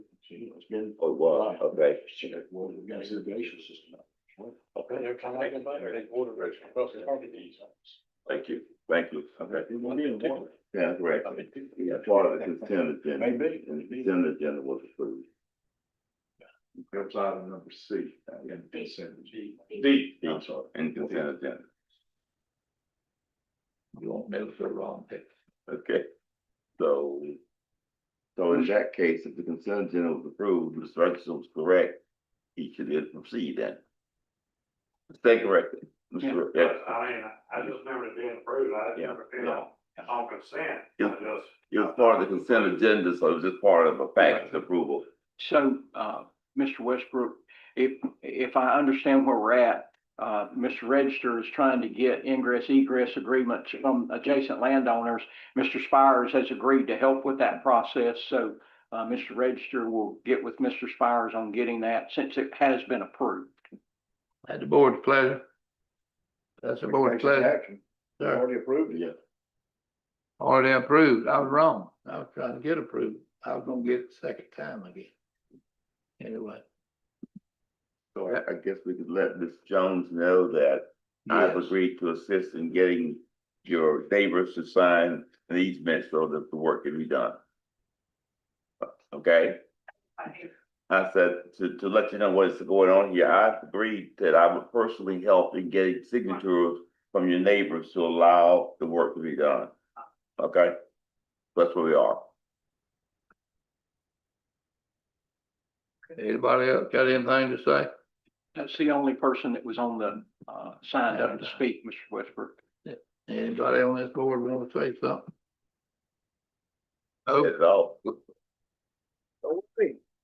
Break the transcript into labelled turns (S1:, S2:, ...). S1: It's been.
S2: Oh, wow, okay.
S1: Shit, well, we've got a irrigation system up.
S2: Okay.
S3: They're coming in, but they water rates across the property.
S2: Thank you, thank you, okay.
S1: It won't be in water.
S2: Yeah, correct. Yeah, part of the consent agenda,
S1: Maybe.
S2: and the consent agenda was approved.
S1: That's item number C. D.
S2: D,
S1: I'm
S2: sorry. And consent agenda.
S1: You won't mail for the wrong thing.
S2: Okay, so. So in that case, if the consent agenda was approved, Mr. Hutchinson was correct, he should then proceed then. Stay corrected,
S1: Yeah.
S2: Mr.
S3: I,
S2: Yes,
S3: I mean, I just remember it being approved, I
S2: Yeah,
S3: just never been
S2: yeah.
S3: on, on consent, I
S2: Yeah.
S3: just.
S2: it was part of the consent agenda, so it was just part of a package approval.
S4: So, uh, Mr. Westbrook, if, if I understand where we're at, uh, Mr. Register is trying to get ingress egress agreements from adjacent landowners. Mr. Spires has agreed to help with that process, so, uh, Mr. Register will get with Mr. Spires on getting that since it has been approved.
S5: At the board's pleasure. That's the board's pleasure. Sir.
S1: Already approved it.
S2: Yeah.
S5: Already approved. I was wrong. I was trying to get approved. I was gonna get it the second time again. Anyway,
S2: So I- I guess we could let Ms. Jones know that I've
S5: Yes.
S2: agreed to assist in getting your neighbors to sign an easement so that the work can be done. Okay? I said, to, to let you know what's going on here, I agreed that I would personally help in getting signatures from your neighbors to allow the work to be done. Okay? That's where we are.
S5: anybody else got anything to say?
S4: That's the only person that was on the, uh, signed up to speak, Mr. Westbrook.
S5: Anybody on this board want to say something? Oh,
S2: That's all.
S4: Okay.